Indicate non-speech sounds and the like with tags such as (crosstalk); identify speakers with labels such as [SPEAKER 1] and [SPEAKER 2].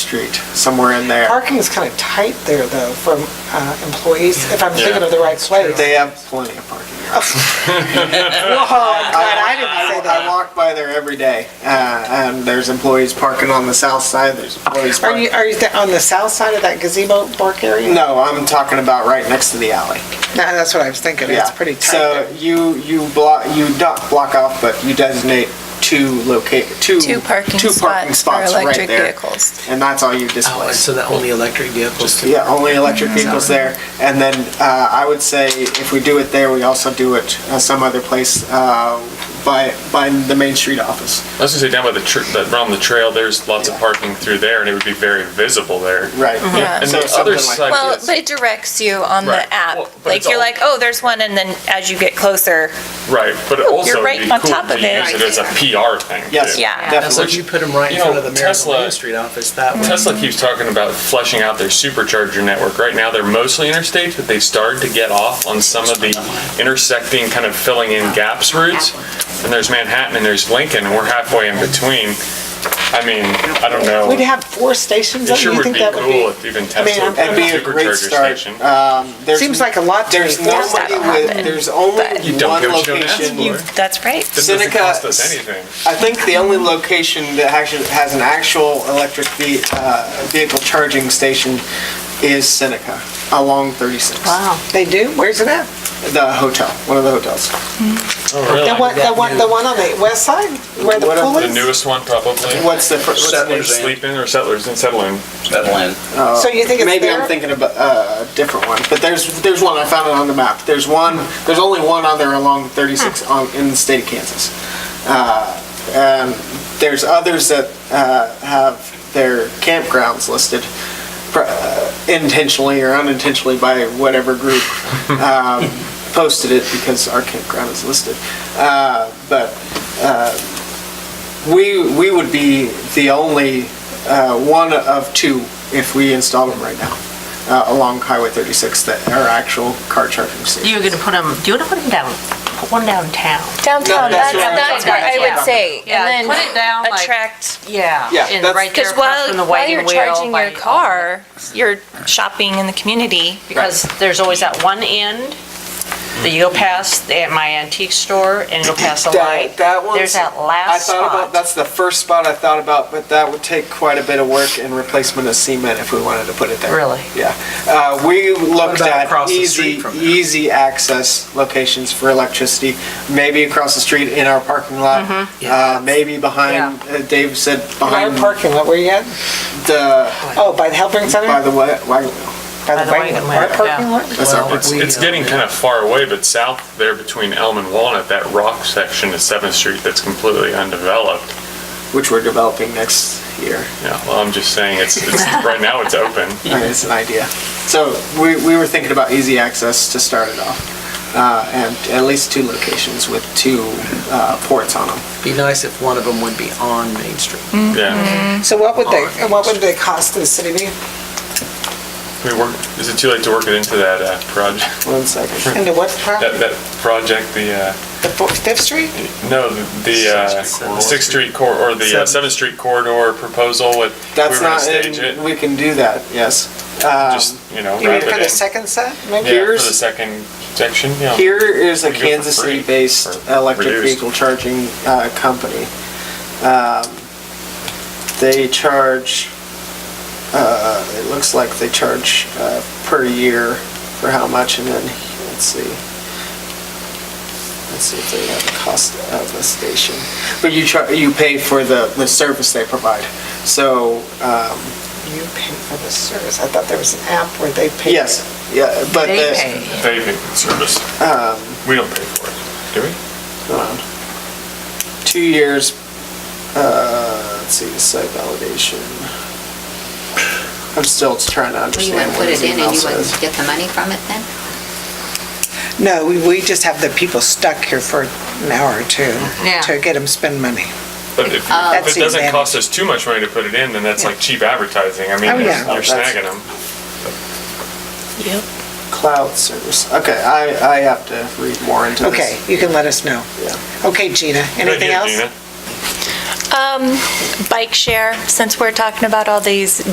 [SPEAKER 1] Street, somewhere in there.
[SPEAKER 2] Parking is kind of tight there, though, for uh, employees, if I'm thinking
[SPEAKER 3] Yeah.
[SPEAKER 2] of the right place. (laughs)
[SPEAKER 1] They (laughs) have plenty of parking.
[SPEAKER 2] Whoa, I'm glad I didn't say
[SPEAKER 1] I
[SPEAKER 2] that.
[SPEAKER 1] walk by there every day, uh, and there's employees parking on the south side, there's employees
[SPEAKER 2] Are you,
[SPEAKER 1] parking.
[SPEAKER 2] are you th- on the south side of that gazebo park area?
[SPEAKER 1] No, I'm talking about right next to the alley.
[SPEAKER 2] No, that's what I was thinking,
[SPEAKER 1] Yeah.
[SPEAKER 2] it's pretty tight
[SPEAKER 1] So
[SPEAKER 2] there.
[SPEAKER 1] you, you block, you don't block off, but you designate two locate, two.
[SPEAKER 4] Two parking
[SPEAKER 1] two parking
[SPEAKER 4] spots for
[SPEAKER 1] spots right
[SPEAKER 4] electric
[SPEAKER 1] there,
[SPEAKER 4] vehicles.
[SPEAKER 1] And that's all you
[SPEAKER 3] Oh, and
[SPEAKER 1] display.
[SPEAKER 3] so the only electric vehicles can,
[SPEAKER 1] Yeah, only electric vehicles there. And then uh, I would say if we do it there, we also do it uh, some other place uh, by, by the Main Street office.
[SPEAKER 5] I was gonna say down by the, tr- that- around the trail, there's lots of parking through there and it would be very visible there.
[SPEAKER 1] Right.
[SPEAKER 4] Yeah.
[SPEAKER 5] And
[SPEAKER 1] So
[SPEAKER 5] the
[SPEAKER 1] something
[SPEAKER 5] other
[SPEAKER 1] like-
[SPEAKER 5] side
[SPEAKER 4] Well,
[SPEAKER 5] is,
[SPEAKER 4] but it directs you on
[SPEAKER 5] Right.
[SPEAKER 4] the app.
[SPEAKER 5] Well, but
[SPEAKER 4] Like,
[SPEAKER 5] it's
[SPEAKER 4] you're
[SPEAKER 5] all-
[SPEAKER 4] like, oh, there's one, and then as you get closer,
[SPEAKER 5] right, but it also
[SPEAKER 4] you're
[SPEAKER 5] would
[SPEAKER 4] right
[SPEAKER 5] be
[SPEAKER 4] on
[SPEAKER 5] cool
[SPEAKER 4] top
[SPEAKER 5] to
[SPEAKER 4] of
[SPEAKER 5] use
[SPEAKER 4] it.
[SPEAKER 5] it as a PR thing.
[SPEAKER 1] Yes.
[SPEAKER 5] too.
[SPEAKER 4] Yeah.
[SPEAKER 3] as long as you
[SPEAKER 1] Definitely.
[SPEAKER 3] put them right in
[SPEAKER 5] You
[SPEAKER 3] front
[SPEAKER 5] know,
[SPEAKER 3] of the mayor and the
[SPEAKER 5] Tesla-
[SPEAKER 3] Main Street office, that way.
[SPEAKER 5] Tesla keeps talking about fleshing out their supercharger network. Right now, they're mostly interstates, but they started to get off on some of the intersecting, kind of filling in gaps routes. And there's Manhattan and there's Lincoln, and we're halfway in between. I mean, I don't know.
[SPEAKER 2] We'd have four stations,
[SPEAKER 5] It
[SPEAKER 2] don't you
[SPEAKER 5] sure would
[SPEAKER 2] think
[SPEAKER 5] be
[SPEAKER 2] that would be?
[SPEAKER 5] cool if even Tesla
[SPEAKER 2] I'm-
[SPEAKER 5] had
[SPEAKER 1] That'd
[SPEAKER 5] a
[SPEAKER 1] be a great
[SPEAKER 5] supercharger
[SPEAKER 1] start.
[SPEAKER 5] station.
[SPEAKER 1] Um, there's-
[SPEAKER 2] Seems like a lot to me.
[SPEAKER 1] There's
[SPEAKER 4] Yes,
[SPEAKER 1] nobody
[SPEAKER 4] that'll
[SPEAKER 1] with,
[SPEAKER 4] happen.
[SPEAKER 1] there's only
[SPEAKER 4] But-
[SPEAKER 5] You don't
[SPEAKER 1] one
[SPEAKER 5] get what you don't ask
[SPEAKER 1] location.
[SPEAKER 4] you, that's right.
[SPEAKER 5] This doesn't
[SPEAKER 1] Seneca-
[SPEAKER 5] cost us anything.
[SPEAKER 1] I think the only location that actually has an actual electric ve- uh, vehicle charging station is Seneca along 36.
[SPEAKER 2] Wow, they do? Where's it at?
[SPEAKER 1] The hotel, one of the hotels.
[SPEAKER 5] Oh,
[SPEAKER 2] The
[SPEAKER 5] really?
[SPEAKER 2] one, the one, the one on the west side, where the
[SPEAKER 1] What are
[SPEAKER 2] pool
[SPEAKER 1] the
[SPEAKER 5] The
[SPEAKER 2] is?
[SPEAKER 5] newest one, probably.
[SPEAKER 1] What's the, fir- what's the name?
[SPEAKER 3] Settlers.
[SPEAKER 5] Sleeping or settlers and settling.
[SPEAKER 2] So you think it's
[SPEAKER 1] Maybe I'm
[SPEAKER 2] there?
[SPEAKER 1] thinking of a a different one, but there's, there's one, I found it on the map. There's one, there's only one on there along 36 on, in the state of Kansas. Uh, um, There's others that uh, have their campgrounds listed pr- uh, intentionally or unintentionally by whatever group um, posted it because our campground is listed. Uh, But uh, we, we would be the only uh, one of two if we install them right now uh, along Highway 36 that are actual car charging stations.
[SPEAKER 6] You're gonna put them, do you wanna put them down, put one downtown?
[SPEAKER 4] Downtown,
[SPEAKER 1] No, that's
[SPEAKER 4] that's,
[SPEAKER 1] what I'm
[SPEAKER 4] that's
[SPEAKER 1] talking
[SPEAKER 4] what I
[SPEAKER 1] about.
[SPEAKER 4] would say.
[SPEAKER 6] Yeah,
[SPEAKER 4] And
[SPEAKER 6] put it down,
[SPEAKER 4] then
[SPEAKER 6] like-
[SPEAKER 4] attract,
[SPEAKER 6] Yeah.
[SPEAKER 1] Yeah,
[SPEAKER 6] And
[SPEAKER 1] that's-
[SPEAKER 6] right there
[SPEAKER 4] because
[SPEAKER 6] across
[SPEAKER 4] while,
[SPEAKER 6] from the
[SPEAKER 4] while you're
[SPEAKER 6] wagon wheel.
[SPEAKER 4] charging your
[SPEAKER 6] by-
[SPEAKER 4] car, you're shopping in the community.
[SPEAKER 6] Because there's always that one end that you go past the- at my antique store and go past the
[SPEAKER 1] That,
[SPEAKER 6] light.
[SPEAKER 1] that one's.
[SPEAKER 6] There's that
[SPEAKER 1] I
[SPEAKER 6] last
[SPEAKER 1] thought about,
[SPEAKER 6] spot.
[SPEAKER 1] that's the first spot I thought about, but that would take quite a bit of work and replacement of cement if we wanted to put it there.
[SPEAKER 6] Really?
[SPEAKER 1] Yeah. Uh, we looked
[SPEAKER 3] about
[SPEAKER 1] at
[SPEAKER 3] across the street
[SPEAKER 1] easy,
[SPEAKER 3] from there?
[SPEAKER 1] easy access locations for electricity, maybe across the street in our parking lot, uh, maybe behind, uh, Dave said
[SPEAKER 2] Our
[SPEAKER 1] behind
[SPEAKER 2] parking lot, where you at?
[SPEAKER 1] the,
[SPEAKER 2] Oh, by the Helping Center?
[SPEAKER 1] by the wa- wagon wheel.
[SPEAKER 2] By
[SPEAKER 6] the wagon
[SPEAKER 2] Our
[SPEAKER 6] wheel,
[SPEAKER 2] parking
[SPEAKER 6] yeah.
[SPEAKER 2] lot?
[SPEAKER 1] That's our
[SPEAKER 3] Well,
[SPEAKER 1] parking
[SPEAKER 5] It's,
[SPEAKER 3] We,
[SPEAKER 5] it's
[SPEAKER 3] uh,
[SPEAKER 5] getting kind of far away, but south there between Elm and Walnut, that rock section of Seventh Street that's completely undeveloped.
[SPEAKER 1] which we're developing next year.
[SPEAKER 5] Yeah, well, I'm just saying, it's, it's, right now it's open.
[SPEAKER 1] I mean, It's an idea. So we, we were thinking about easy access to start it off. Uh, and at least two locations with two, uh, ports on them.
[SPEAKER 3] Be nice if one of them would be on Main Street.
[SPEAKER 5] Yeah.
[SPEAKER 2] So what would they, and what would they cost to the city be?
[SPEAKER 5] We work, is it too late to work it into that, uh, project,
[SPEAKER 1] One second.
[SPEAKER 2] Into what
[SPEAKER 5] that,
[SPEAKER 2] property?
[SPEAKER 5] that project, the, uh,
[SPEAKER 2] The Fo- Fifth Street?
[SPEAKER 5] no, the, uh, Sixth Street cor, or the uh, Seventh Street corridor proposal with, we were
[SPEAKER 1] That's
[SPEAKER 5] gonna
[SPEAKER 1] not,
[SPEAKER 5] stage it,
[SPEAKER 1] in- we can do that, yes.
[SPEAKER 5] just, you know,
[SPEAKER 2] You mean
[SPEAKER 5] wrap
[SPEAKER 2] for the
[SPEAKER 5] it in.
[SPEAKER 2] second set, maybe?
[SPEAKER 5] Yeah, for the
[SPEAKER 1] Here's-
[SPEAKER 5] second section, yeah.
[SPEAKER 1] Here is a
[SPEAKER 5] You can go for
[SPEAKER 1] Kansas
[SPEAKER 5] free
[SPEAKER 1] City-based
[SPEAKER 5] or
[SPEAKER 1] electric
[SPEAKER 5] reduced.
[SPEAKER 1] vehicle charging, uh, company. Um, They charge, uh, it looks like they charge, uh, per year for how much and then, let's see. Let's see if they have the cost of the station. But you char, you pay for the, the service they provide. So, um,
[SPEAKER 2] You pay for the service. I thought there was an app where they paid.
[SPEAKER 1] yes, yeah, but the. um,
[SPEAKER 6] They pay.
[SPEAKER 5] They pay for the service. We don't pay for it, do we?
[SPEAKER 1] Hold on. Two years, uh, let's see, site validation. I'm still trying to
[SPEAKER 7] Well, you
[SPEAKER 1] understand
[SPEAKER 7] wouldn't
[SPEAKER 1] what
[SPEAKER 7] put
[SPEAKER 1] his
[SPEAKER 7] it in
[SPEAKER 1] email
[SPEAKER 7] and you wouldn't
[SPEAKER 1] says.
[SPEAKER 7] get the money from it then?
[SPEAKER 2] No, we, we just have the people stuck here for an hour or two
[SPEAKER 6] Yeah.
[SPEAKER 2] to get them spend money.
[SPEAKER 5] But if,
[SPEAKER 2] Uh, That's
[SPEAKER 5] if
[SPEAKER 2] the
[SPEAKER 5] it doesn't
[SPEAKER 2] advantage.
[SPEAKER 5] cost us too much money to put it in, then that's like cheap advertising. I mean,
[SPEAKER 2] Oh,
[SPEAKER 5] you're
[SPEAKER 2] yeah.
[SPEAKER 1] Oh,
[SPEAKER 5] you're
[SPEAKER 1] that's-
[SPEAKER 5] snagging them.
[SPEAKER 1] Cloud service, okay, I, I have to read more into this.
[SPEAKER 2] Okay, you can let us know.
[SPEAKER 1] Yeah.
[SPEAKER 2] Okay, Gina,
[SPEAKER 5] Good
[SPEAKER 2] anything
[SPEAKER 5] idea,
[SPEAKER 2] else?
[SPEAKER 5] Gina.
[SPEAKER 4] Um, bike share, since we're talking about all these